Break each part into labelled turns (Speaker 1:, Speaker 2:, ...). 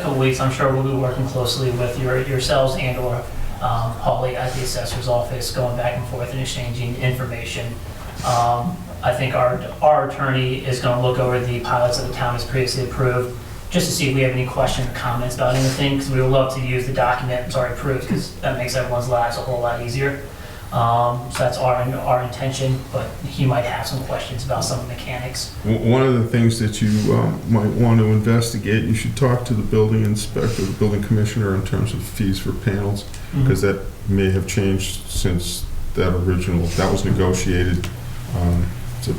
Speaker 1: couple weeks, I'm sure we'll be working closely with your yourselves and/or um, Holly at the assessor's office, going back and forth and exchanging information. Um, I think our our attorney is going to look over the pilots that the town has previously approved, just to see if we have any questions or comments about anything, because we would love to use the document that's already approved, because that makes everyone's lives a whole lot easier. Um, So that's our our intention, but he might have some questions about some mechanics.
Speaker 2: W- One of the things that you um, might want to investigate, you should talk to the building inspector, the building commissioner in terms of fees for panels, because that may have changed since that original, that was negotiated. um, so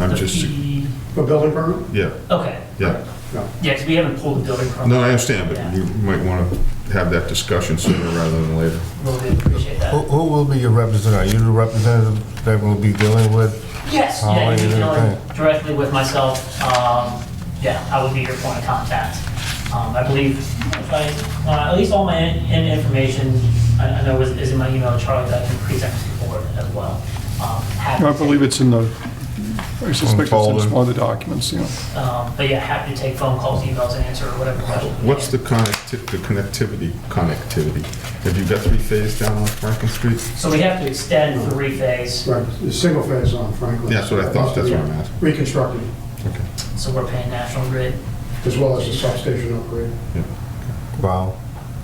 Speaker 2: I'm
Speaker 1: The
Speaker 2: just,
Speaker 1: fee-
Speaker 3: For building permit?
Speaker 2: yeah,
Speaker 1: Okay.
Speaker 2: Yeah.
Speaker 3: No.
Speaker 1: Yeah, because we haven't pulled the building permit.
Speaker 2: no, I understand, but you might want to have that discussion sooner rather than later.
Speaker 1: Really appreciate
Speaker 4: Who,
Speaker 1: that.
Speaker 4: who will be your representative? Are you the representative that will be dealing with?
Speaker 1: Yes,
Speaker 4: How
Speaker 1: Oh, yeah,
Speaker 4: are
Speaker 1: you
Speaker 4: you
Speaker 1: can
Speaker 4: doing?
Speaker 1: deal directly with myself. Um, yeah, I would be your point of contact. Um, I believe, if I, uh, at least all my in, in information, I, I know is, is in my email, Charlie, that I can present to the board as well. Um, happy
Speaker 5: I
Speaker 1: to-
Speaker 5: believe it's in the, I suspect it's
Speaker 4: folder.
Speaker 5: in one of the documents, you know.
Speaker 1: Um, but yeah, happy to take phone calls, emails, and answer whatever question.
Speaker 2: What's the connecti, the connectivity, connectivity? Have you got three phase down on Franklin Street?
Speaker 1: So we have to extend the rephase,
Speaker 3: Right, it's single phase on Franklin.
Speaker 2: That's what I thought, that's what I'm asking.
Speaker 3: Reconstructed,
Speaker 2: Okay.
Speaker 1: so we're paying National Grid.
Speaker 3: as well as the substation upgrade.
Speaker 4: Wow.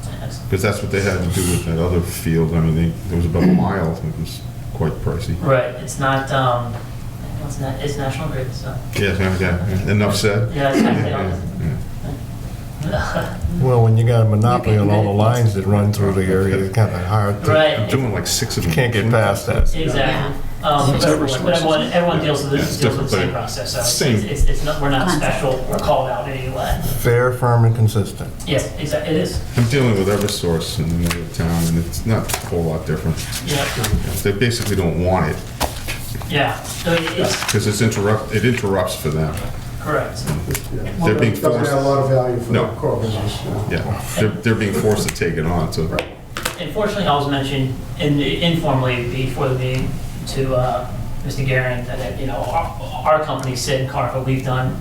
Speaker 1: That's-
Speaker 2: Because that's what they had to do with that other field. I mean, they, there was about a mile, and it was quite pricey.
Speaker 1: Right, it's not, um, it's not, it's National Grid, so,
Speaker 2: Yeah, yeah, yeah. enough said.
Speaker 1: yeah, it's
Speaker 2: Yeah,
Speaker 1: not,
Speaker 2: yeah, yeah.
Speaker 4: Well, when you got a monopoly
Speaker 6: You
Speaker 4: on
Speaker 6: can
Speaker 4: all the
Speaker 6: get it.
Speaker 4: lines that run through the area, it's kind of hard to,
Speaker 2: I'm
Speaker 1: Right,
Speaker 2: doing like six of them.
Speaker 4: can't get past that.
Speaker 1: exactly. Um,
Speaker 5: It's
Speaker 1: but
Speaker 5: every
Speaker 1: everyone, but everyone, everyone deals with
Speaker 2: Yeah,
Speaker 1: this,
Speaker 2: it's
Speaker 1: deals with the same
Speaker 2: different, but
Speaker 1: process, so it's-
Speaker 2: same.
Speaker 1: it's, it's not, we're not
Speaker 6: Concept.
Speaker 1: special, we're called out in any way.
Speaker 4: Fair, firm, and consistent.
Speaker 1: Yes, exa- it is,
Speaker 2: I'm dealing with Eversource in the middle of town, and it's not a whole lot different.
Speaker 1: yeah,
Speaker 2: They basically don't want it
Speaker 1: yeah, so it is,
Speaker 2: because it's interrupt. It interrupts for them.
Speaker 1: correct.
Speaker 3: Yeah.
Speaker 2: They're being
Speaker 3: Doesn't add a lot of value for the
Speaker 2: No.
Speaker 3: core business. yeah.
Speaker 2: Yeah, they're, they're being forced to take it on. So
Speaker 1: Unfortunately, I was mentioned in- informally before the meeting to uh, Mr. Garin that, uh, you know, our our company, Sid and Carver, we've done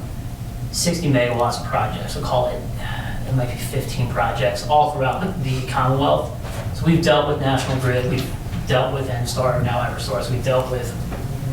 Speaker 1: 60 megawatts of projects, we'll call it, uh, it might be 15 projects, all throughout the Commonwealth. So we've dealt with National Grid, we've dealt with N-Star, now Eversource, we've dealt with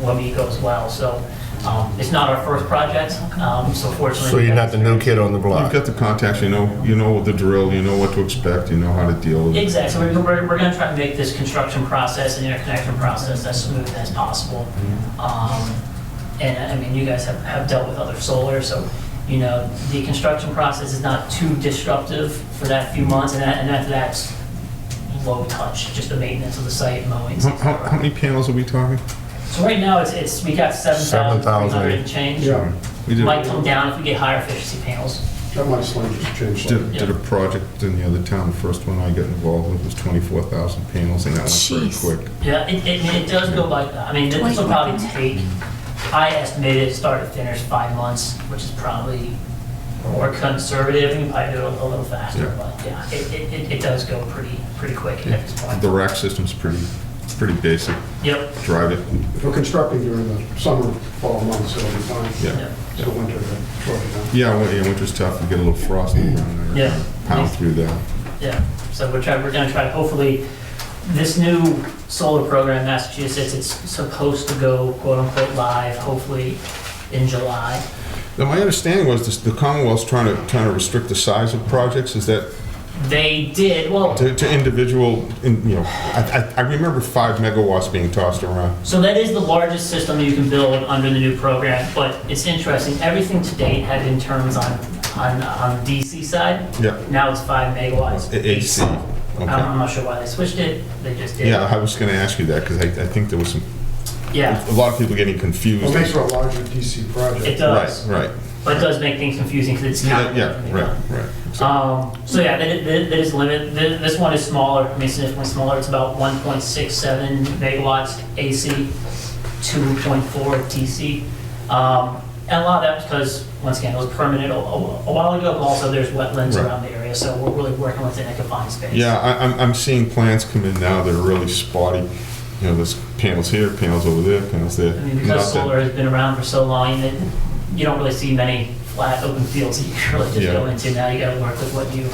Speaker 1: WEMECO as well, so um, it's not our first project, um, so fortunately.
Speaker 4: So you're not the new kid on the
Speaker 2: you've
Speaker 4: block.
Speaker 2: got the contacts. You know, you know the drill. You know what to expect. You know how to deal with it.
Speaker 1: Exactly, So we're, we're, we're gonna try to make this construction process and interconnection process as smooth as possible.
Speaker 2: Mm-hmm.
Speaker 1: Um, and, I mean, you guys have, have dealt with other solar, so, you know, the construction process is not too disruptive for that few months, and that, and that, that's low touch, just the maintenance of the site, mowing.
Speaker 2: How, how, how many panels are we talking?
Speaker 1: So right now, it's, it's, we got seven thousand three hundred and change.
Speaker 3: Yeah,
Speaker 2: We did.
Speaker 1: Might come down if we get higher efficiency panels.
Speaker 3: that might slightly just change.
Speaker 2: Did, did a project in the other town, the first one I got involved with was 24,000 panels, and that went
Speaker 6: Jeez.
Speaker 2: pretty quick.
Speaker 1: Yeah, it, it, it does go by, I mean, this will probably take, I estimated it start to finish five months, which is probably more conservative, you probably do it a little faster,
Speaker 2: Yeah.
Speaker 1: but yeah, it, it, it- it does go pretty, pretty quick at this point.
Speaker 2: The rack system's pretty, it's pretty basic,
Speaker 1: Yep,
Speaker 2: drive it,
Speaker 3: If we're constructing during the summer, fall months, it'll be fine.
Speaker 2: yeah.
Speaker 1: yep,
Speaker 3: So winter, uh, short enough.
Speaker 2: Yeah, win- yeah, winter's tough, you get a little frost in the ground there.
Speaker 1: Yeah.
Speaker 2: Pound through that.
Speaker 1: yeah. So we're trying, we're gonna try, hopefully, this new solar program in Massachusetts, it's supposed to go quote unquote live, hopefully in July.
Speaker 2: Now, my understanding was this- the Commonwealth's trying to, trying to restrict the size of projects, is that
Speaker 1: They did, well,
Speaker 2: to, to individual, in- you know, I, I I remember five megawatts being tossed around.
Speaker 1: So that is the largest system you can build under the new program, but it's interesting, everything to date had been terms on, on, on DC side.
Speaker 2: Yeah,
Speaker 1: Now it's five megawatts.
Speaker 2: A- AC,
Speaker 1: I'm
Speaker 2: okay.
Speaker 1: I'm not sure why they switched it, they just did.
Speaker 2: Yeah, I was gonna ask you that, because I, I think there was some,
Speaker 1: Yeah,
Speaker 2: a lot of people getting confused.
Speaker 3: Well, makes for a larger DC project.
Speaker 1: it does,
Speaker 2: Right, right.
Speaker 1: but it does make things confusing because it's
Speaker 2: Yeah,
Speaker 1: counted.
Speaker 2: yeah, right, right. So-
Speaker 1: Um, so yeah, that, that that is limited, Th- this one is smaller, I mean significantly smaller, it's about one point six seven megawatts AC, two point four DC. Um, and a lot of that was because, once again, it was permanent a, a a while ago, but also there's wetlands
Speaker 2: Right.
Speaker 1: around the area, so we're really working within a confined space.
Speaker 2: Yeah, I, I'm, I'm seeing plans come in now that are really spotty. You know, there's panels here, panels over there, panels there.
Speaker 1: I mean,
Speaker 2: Not that-
Speaker 1: because solar has been around for so long, that you don't really see many flat open fields that you really just go into. Now you gotta work with what you